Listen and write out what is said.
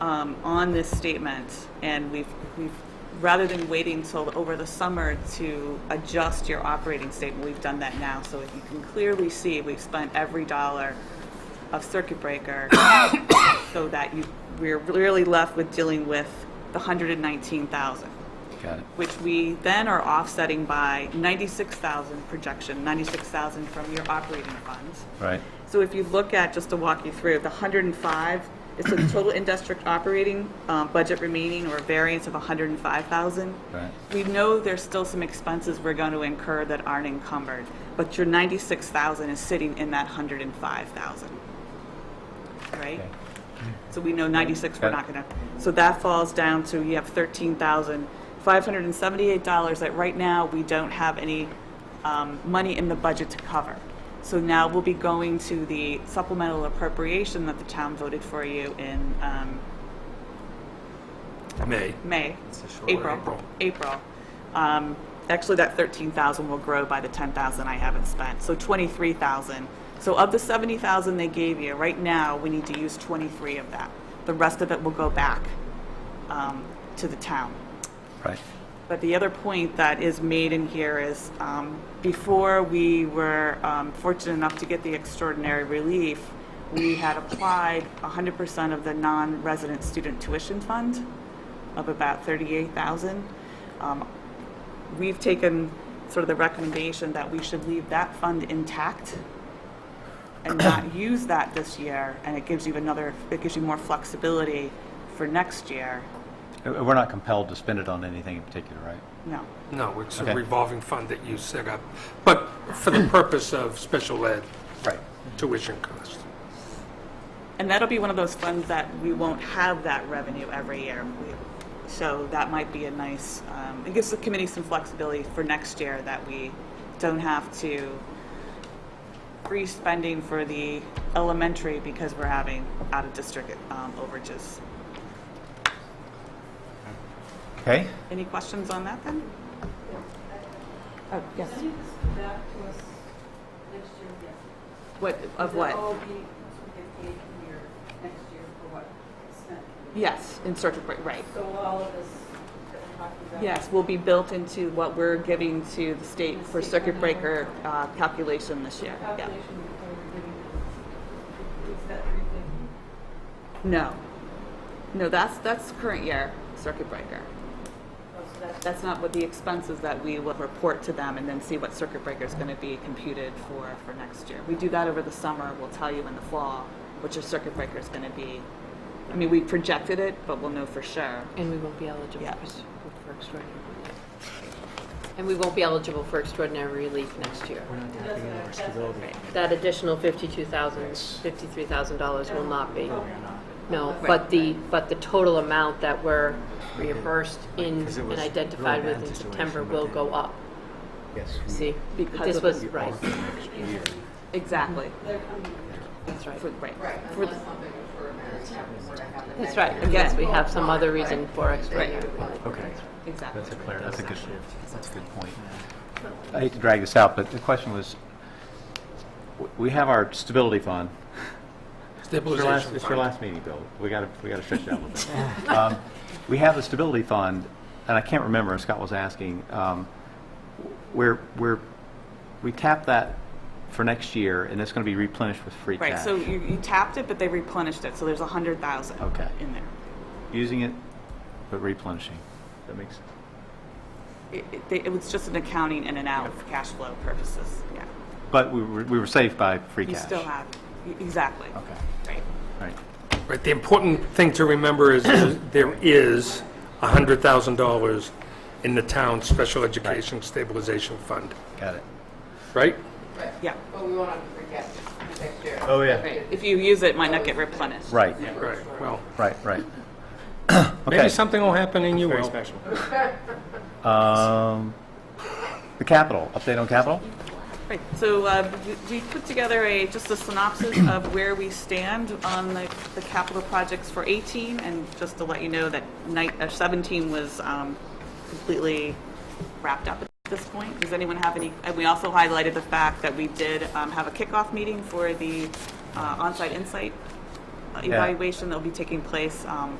um, on this statement, and we've, we've, rather than waiting till over the summer to adjust your operating statement, we've done that now, so if you can clearly see, we've spent every dollar of circuit breaker so that you, we're really left with dealing with the hundred and nineteen thousand Got it. which we then are offsetting by 96,000 projection, 96,000 from your operating funds. Right. So if you look at, just to walk you through, the 105, it's a total in-district operating um, budget remaining or variance of 105,000. Right. We know there's still some expenses we're going to incur that aren't encumbered, but your 96,000 is sitting in that 105,000. Right? Okay. So we know 96, we're Got not it. going to, so that falls down to, you have $13,578 that right now, we don't have any um, money in the budget to cover. So now we'll be going to the supplemental appropriation that the town voted for you in um, May. May, a short April, April. April. Um, Actually, that 13,000 will grow by the 10,000 I haven't spent, so 23,000. So of the 70,000 they gave you, right now, we need to use 23 of that. The rest of it will go back um, to the town. Right. But the other point that is made in here is, um, before we were um, fortunate enough to get the extraordinary relief, we had applied 100% of the non-resident student tuition fund of about 38,000. Um, We've taken sort of the recommendation that we should leave that fund intact and not use that this year, and it gives you another, it gives you more flexibility for next year. Uh, We're not compelled to spend it on anything in particular, right? No. No, it's a Okay. revolving fund that you set up, but for the purpose of special ed Right. tuition costs. And that'll be one of those funds that we won't have that revenue every year. We- So that might be a nice, um, it gives the committee some flexibility for next year that we don't have to free spending for the elementary because we're having out-of-district um, overages. Okay. Any questions on that then? Oh, yes. Can you just come back to us next year again? What, of Will what? all be sort of paid from your next year for what extent? Yes, in circuit breaker, right. So all of this that we're talking about? Yes, will be built into what we're giving to the state for circuit breaker uh, calculation this year. Yeah. Calculation that we're giving, is that three fifty? No. No, that's, that's current year circuit breaker. Oh, so that's, That's not what the expenses that we will report to them and then see what circuit breaker is going to be computed for, for next year. We do that over the summer. We'll tell you in the fall what your circuit breaker is going to be. I mean, we projected it, but we'll know for sure. And we won't be eligible Yeah. for s- for extraordinary. And we won't be eligible for extraordinary relief next year. that's what I, that's Right. That additional $52,000, $53,000 will not be. No, but the, but the total amount that we're reimbursed in Because it and was identified really with bad in situation, September but will they- go up. Yes. we- See? Because This of was, we right, are for next year. Exactly. they're coming. that's right. For, right. For the- Unless something for Americans happens to happen. That's right, unless we have some other reason for extraordinary relief. Okay. Exactly. That's a clear, that's a good, that's a good point. I hate to drag this out, but the question was, w- we have our stability fund. It's your last, Stabilization it's your fund. last meeting, Bill. We gotta, we gotta stretch it out a little bit. Um, We have the stability fund, and I can't remember, Scott was asking, um, we're, we're, we tap that for next year, and it's gonna be replenished with free cash. Right, so you, you tapped it, but they replenished it, so there's a hundred thousand Okay. in there. Using it, but replenishing. That makes, It, it, they- it was just an accounting in and out for cash flow purposes, yeah. but we were, we were saved by free You cash. still have, e- exactly. Okay, Right. right. Right, the important thing to remember is is there is $100,000 in the town's special education stabilization fund, Got it. right? Yeah. But we won't have to forget next year. Oh, yeah. Right. If you use it, it might not get replenished. Right, Right, well, right, right. maybe Okay. something will happen and you will. Um, The capital, update on capital? Right, so uh, we we put together a, just a synopsis of where we stand on the the capital projects for 18, and just to let you know that night, uh, 17 was um, completely wrapped up at this point. Does anyone have any, and we also highlighted the fact that we did um, have a kickoff meeting for the uh, onsite insight evaluation that'll be taking place um,